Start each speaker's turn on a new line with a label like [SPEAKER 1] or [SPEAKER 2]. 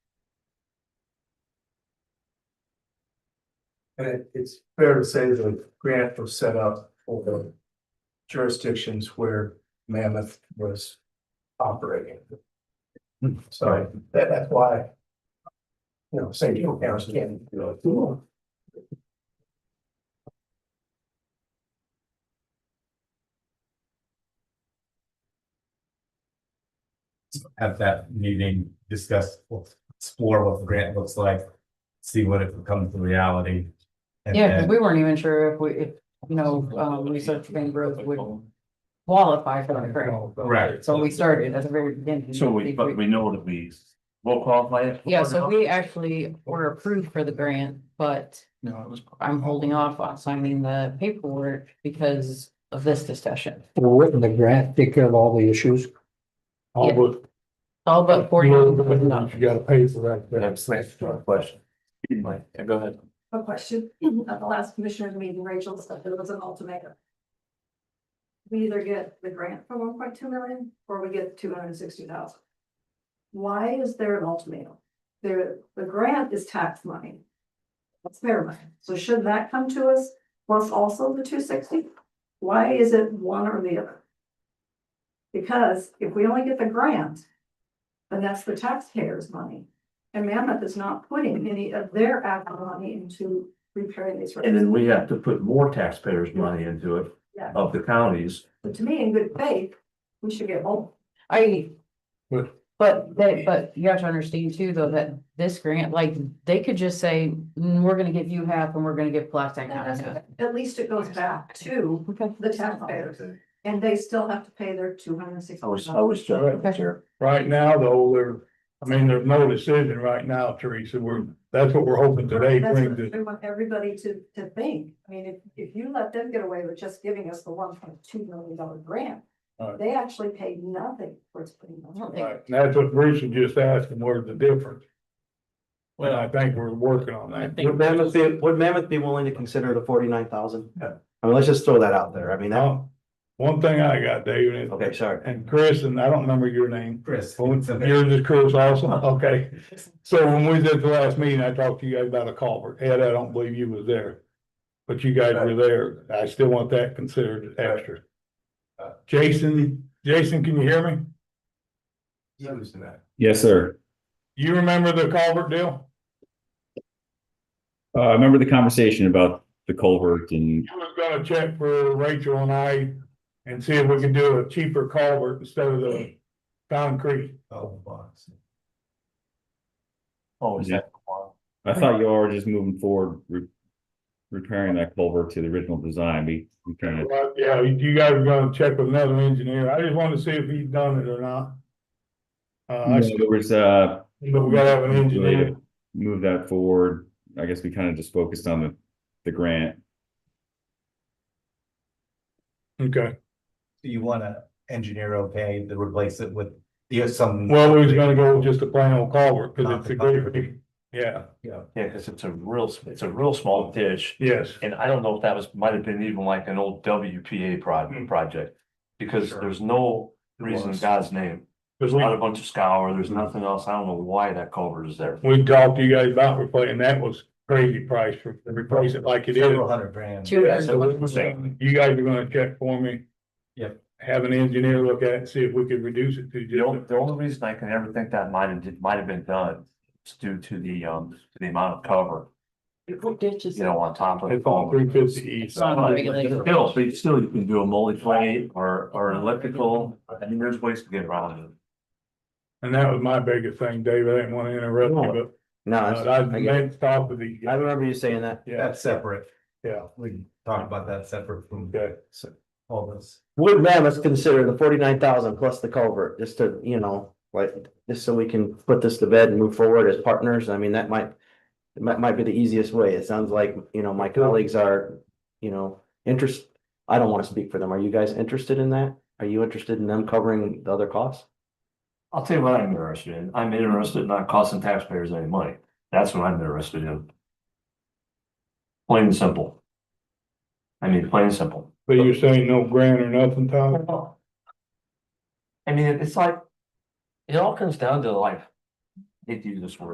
[SPEAKER 1] And it- it's fair to say the grant was set up for the jurisdictions where Mammoth was operating. So that, that's why, you know, St. Joe parents can't, you know, do
[SPEAKER 2] have that meeting, discuss, explore what the grant looks like, see what it becomes to reality. and
[SPEAKER 3] Yeah,
[SPEAKER 2] then-
[SPEAKER 3] because we weren't even sure if we, if, you know, um, research Bainbridge would qualify for the grant.
[SPEAKER 2] Correct.
[SPEAKER 3] So we started at the very beginning.
[SPEAKER 4] So we, but we know that we will qualify it.
[SPEAKER 3] Yeah, so we actually were approved for the grant, but
[SPEAKER 4] No, it was.
[SPEAKER 3] I'm holding off on signing the paperwork because of this discussion.
[SPEAKER 5] Well, wouldn't the grant take care of all the issues?
[SPEAKER 3] Yeah.
[SPEAKER 5] but.
[SPEAKER 3] All but forty.
[SPEAKER 5] You gotta pay for
[SPEAKER 4] But
[SPEAKER 5] that. grant.
[SPEAKER 4] I'm saying, a question. Mike, yeah, go ahead.
[SPEAKER 6] a question at the last commissioner's meeting, Rachel said there was an ultimatum. We either get the grant for one point two million or we get two hundred and sixty thousand. Why is there an ultimatum? There, the grant is tax money. That's their money. So should that come to us plus also the two sixty? Why is it one or the other? Because if we only get the grant, then that's the taxpayers' money. And Mammoth is not putting any of their ARPA money into repairing these roads.
[SPEAKER 4] And then we have to put more taxpayers' money into it
[SPEAKER 6] Yeah.
[SPEAKER 4] of the counties.
[SPEAKER 6] But to me, in good faith, we should get both.
[SPEAKER 3] I.
[SPEAKER 5] What?
[SPEAKER 3] But they, but you have to understand too, though, that this grant, like, they could just say, "Mm, we're gonna give you half and we're gonna give plastic. half."
[SPEAKER 6] At least it goes back to
[SPEAKER 3] Okay.
[SPEAKER 6] the taxpayers, and they still have to pay their two hundred and sixty.
[SPEAKER 4] I was, I was just
[SPEAKER 3] Okay.
[SPEAKER 4] there.
[SPEAKER 7] Right now, though, there, I mean, there's no decision right now, Teresa. We're, that's what we're hoping today
[SPEAKER 6] That's
[SPEAKER 7] brings
[SPEAKER 6] what
[SPEAKER 7] it.
[SPEAKER 6] we want everybody to, to think. I mean, if, if you let them get away with just giving us the one point two million dollar grant,
[SPEAKER 7] Right.
[SPEAKER 6] they actually paid nothing towards putting those. roads.
[SPEAKER 7] Right, and that's what Bruce was just asking, where's the difference? Well, I think we're working on that.
[SPEAKER 8] Would Mammoth be, would Mammoth be willing to consider the forty-nine thousand?
[SPEAKER 7] Yeah.
[SPEAKER 8] I mean, let's just throw that out there. I mean, that,
[SPEAKER 7] Now, one thing I got, David, and-
[SPEAKER 8] okay, sorry.
[SPEAKER 7] and Chris, and I don't remember your name.
[SPEAKER 2] Chris.
[SPEAKER 7] Yours
[SPEAKER 2] it's a very-
[SPEAKER 7] is Chris also, okay. So when we did the last meeting, I talked to you guys about a culvert. Ed, I don't believe you was there. But you guys were there. I still want that considered extra. Jason, Jason, can you hear me?
[SPEAKER 1] that.
[SPEAKER 9] Yes, sir.
[SPEAKER 7] You remember the culvert deal?
[SPEAKER 9] Uh, I remember the conversation about the culvert and
[SPEAKER 7] I was gonna check for Rachel and I and see if we could do a cheaper culvert instead of the concrete.
[SPEAKER 2] Oh, box.
[SPEAKER 4] Oh, is that?
[SPEAKER 9] I thought you all were just moving forward, re- repairing that culvert to the original design. We, we kind of,
[SPEAKER 7] But yeah, you guys are gonna check with another engineer. I just wanted to see if he's done it or not. Uh, I
[SPEAKER 9] there
[SPEAKER 7] still,
[SPEAKER 9] was, uh,
[SPEAKER 7] but we gotta have an engineer.
[SPEAKER 9] move that forward. I guess we kind of just focused on the, the grant.
[SPEAKER 7] Okay,
[SPEAKER 2] Do you wanna engineer okay to replace it with, you have some.
[SPEAKER 7] well, we was gonna go with just a plain old culvert, cause it's a great, big- yeah,
[SPEAKER 4] Yeah, because it's a real, it's a real small ditch.
[SPEAKER 7] yes.
[SPEAKER 4] And I don't know if that was, might have been even like an old WPA
[SPEAKER 7] Hmm.
[SPEAKER 4] project, project. Because
[SPEAKER 2] Sure.
[SPEAKER 4] there's no reason in
[SPEAKER 2] was.
[SPEAKER 4] God's name.
[SPEAKER 7] Cause
[SPEAKER 4] There's not
[SPEAKER 7] we,
[SPEAKER 4] a bunch of scour, there's
[SPEAKER 8] Hmm.
[SPEAKER 4] nothing else. I don't know why that culvert is there.
[SPEAKER 7] we talked to you guys about replacing, that was crazy price for, to replace it like it is.
[SPEAKER 2] Several hundred grand.
[SPEAKER 3] Two
[SPEAKER 7] Yeah,
[SPEAKER 3] years.
[SPEAKER 7] so we- so You guys are gonna check for me?
[SPEAKER 2] Yep.
[SPEAKER 7] Have an engineer look at it, and see if we could reduce it to
[SPEAKER 4] The only,
[SPEAKER 7] just,
[SPEAKER 4] the only reason I can ever think that might have, might have been done is due to the, um, to the amount of cover,
[SPEAKER 3] Ditches.
[SPEAKER 4] you know, on top of.
[SPEAKER 7] it's on three fifty east.
[SPEAKER 3] not a regulation.
[SPEAKER 4] Still, so you still, you can do a multi-plate or, or electrical, I mean, there's ways to get around it.
[SPEAKER 7] And that was my biggest thing, Dave, I didn't wanna interrupt you,
[SPEAKER 8] No,
[SPEAKER 7] but
[SPEAKER 8] I,
[SPEAKER 7] I
[SPEAKER 8] I get it.
[SPEAKER 7] meant to talk with the,
[SPEAKER 8] I remember you saying that.
[SPEAKER 7] yeah,
[SPEAKER 2] That's separate.
[SPEAKER 7] yeah,
[SPEAKER 2] We can talk about that separate from
[SPEAKER 7] okay.
[SPEAKER 2] all this.
[SPEAKER 8] Would Mammoth consider the forty-nine thousand plus the culvert, just to, you know, like, just so we can put this to bed and move forward as partners? I mean, that might. It might, might be the easiest way. It sounds like, you know, my colleagues are, you know, interest, I don't want to speak for them. Are you guys interested in that? Are you interested in them covering the other costs?
[SPEAKER 4] I'll tell you what I'm interested in, I'm interested in not costing taxpayers any money, that's what I'm interested in. Plain and simple. I mean, plain and simple.
[SPEAKER 7] But you're saying no grant or nothing, Tom?
[SPEAKER 4] I mean, it's like, it all comes down to like, I hate to use this word,